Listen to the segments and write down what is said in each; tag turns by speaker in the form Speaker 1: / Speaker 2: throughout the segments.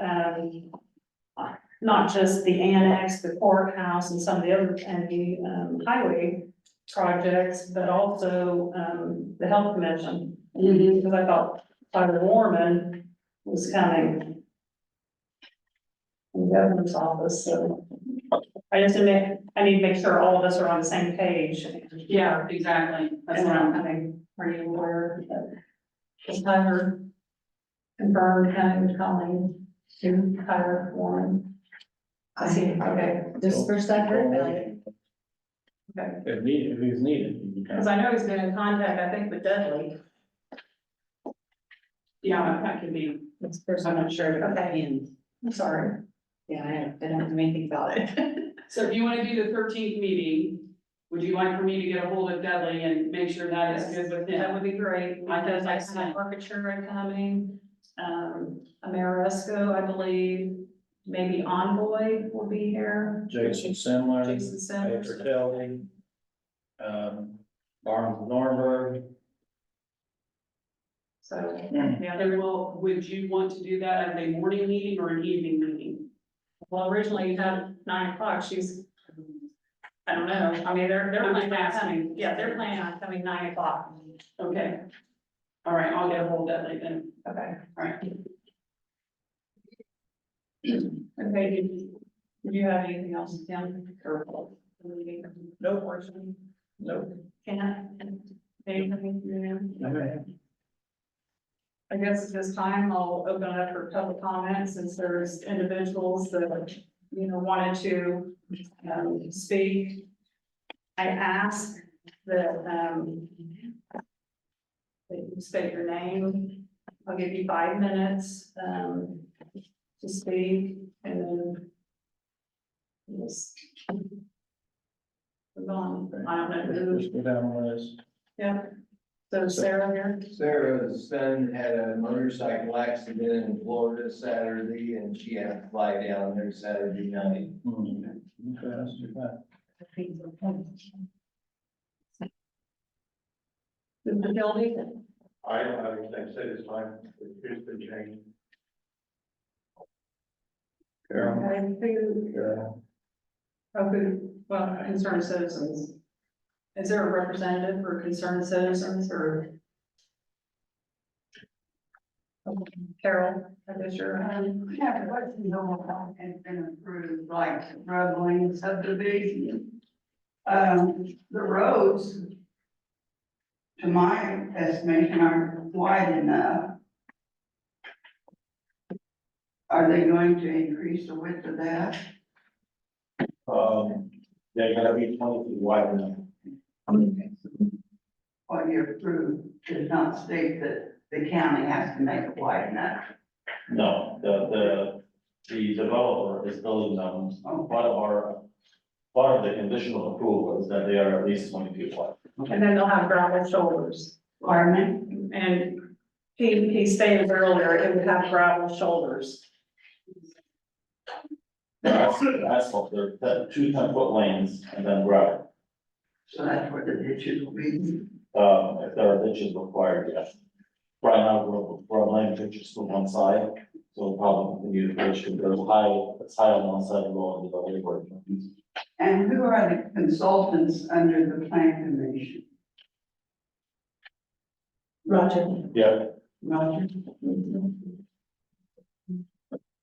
Speaker 1: um, not just the annex, the courthouse and some of the other county, um, highway projects, but also, um, the health commission. Because I thought Tyler Warman was coming. From the governor's office, so I just, admit- I need to make sure all of us are on the same page.
Speaker 2: Yeah, exactly, that's what I'm,
Speaker 1: having, are you aware that is Tyler confirmed having calling to Tyler Warren? I see, okay,
Speaker 3: This first I heard about it.
Speaker 1: okay,
Speaker 4: If needed, if it's needed.
Speaker 1: because I know he's been in contact, I think, with Dudley.
Speaker 2: yeah, that could be,
Speaker 3: This first
Speaker 2: I'm not sure.
Speaker 1: Okay. I'm sorry.
Speaker 3: Yeah, I don't, I don't know anything about it.
Speaker 2: So if you wanna do the thirteenth meeting, would you like for me to get a hold of Dudley and make sure that is good with him?
Speaker 1: would be great,
Speaker 2: I think I see.
Speaker 1: Architecture are coming, um, Ameresco, I believe, maybe Envoy will be here.
Speaker 4: Jason Simler,
Speaker 1: Jason
Speaker 4: Patrick
Speaker 1: Simmons.
Speaker 4: Kelly, um, Barnes and Norberg.
Speaker 1: So,
Speaker 3: Mm.
Speaker 2: Yeah, they will, would you want to do that as a morning meeting or an evening meeting?
Speaker 1: well, originally you had nine o'clock, she's, I don't know, I mean, they're, they're
Speaker 2: I'm
Speaker 1: planning on
Speaker 2: just
Speaker 1: coming,
Speaker 2: asking.
Speaker 1: yeah, they're planning on coming nine o'clock.
Speaker 2: Okay. All right, I'll get a hold of Dudley then.
Speaker 1: Okay.
Speaker 2: All right.
Speaker 1: Okay, did you, did you have anything else, Tim? or-
Speaker 4: No person. No.
Speaker 1: Can I, anything, you know?
Speaker 4: Okay.
Speaker 1: I guess at this time, I'll open it up for public comment since there's individuals that, you know, wanted to, um, speak. I ask that, um, that you state your name. I'll give you five minutes, um, to speak and then just move on. I don't know who,
Speaker 4: Just go down the list.
Speaker 1: yeah. So Sarah here.
Speaker 5: Sarah's son had a motorcycle accident in Florida Saturday and she had to fly down there Saturday night.
Speaker 4: Hmm. You fast, you fast.
Speaker 1: The building.
Speaker 6: I don't have anything to say this time, here's the change.
Speaker 4: Carol,
Speaker 1: Okay, who,
Speaker 4: Carol,
Speaker 1: oh, who, well, concerned citizens. Is there a representative for concerned citizens or? Carol, that is your,
Speaker 7: Um, I have a question, though, has been approved, like road lane subdivision. Um, the roads, to my estimation, aren't wide enough. Are they going to increase the width of that?
Speaker 4: um, they're gonna be twenty feet wide enough.
Speaker 7: What you approved does not state that the county has to make it wide enough.
Speaker 6: No, the, the, the developer is building them,
Speaker 7: Oh,
Speaker 6: part of our, part of the conditional approval is that they are at least twenty feet wide.
Speaker 1: and then they'll have gravel shoulders.
Speaker 7: Pardon me?
Speaker 1: And he, he stated earlier, it would have gravel shoulders.
Speaker 6: That's, that's what they're, that two ten foot lanes and then gravel,
Speaker 7: So that's where the ditches will be.
Speaker 6: um, if there are ditches required, yes. Right now, we're, we're laying ditches to one side, so we'll probably continue to ditch, because there's high, it's high on one side, low on the other, where-
Speaker 7: And who are the consultants under the plan commission?
Speaker 1: Roger.
Speaker 6: yeah,
Speaker 7: Roger.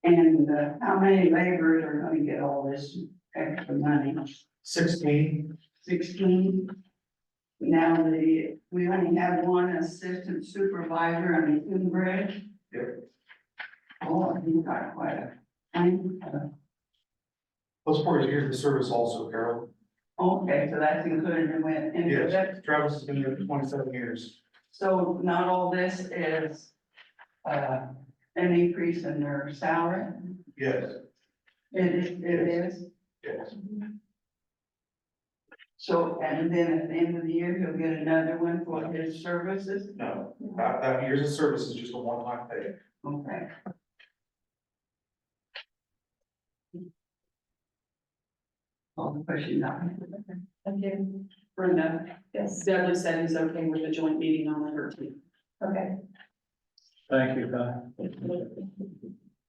Speaker 7: And uh, how many laborers are gonna get all this extra money?
Speaker 5: Sixteen.
Speaker 7: Sixteen? Now, the, we only have one assistant supervisor on the Coon Bridge. Oh, you've got quite a, I'm,
Speaker 8: Those four years of service also, Carol.
Speaker 7: okay, so that's included in with, in with that.
Speaker 8: Yes, Travis has been there for twenty-seven years.
Speaker 7: So not all this is uh, an increase in their salary?
Speaker 8: Yes,
Speaker 7: It is, it is.
Speaker 8: yes.
Speaker 7: So, and then at the end of the year, he'll get another one for his services,
Speaker 8: No, that, that years of service is just a one-time thing.
Speaker 7: okay. All the questions I have.
Speaker 1: Thank you.
Speaker 2: Brenda,
Speaker 1: Yes,
Speaker 2: Dudley said he's okay with the joint meeting on the thirteenth.
Speaker 1: okay.
Speaker 4: Thank you, Ty.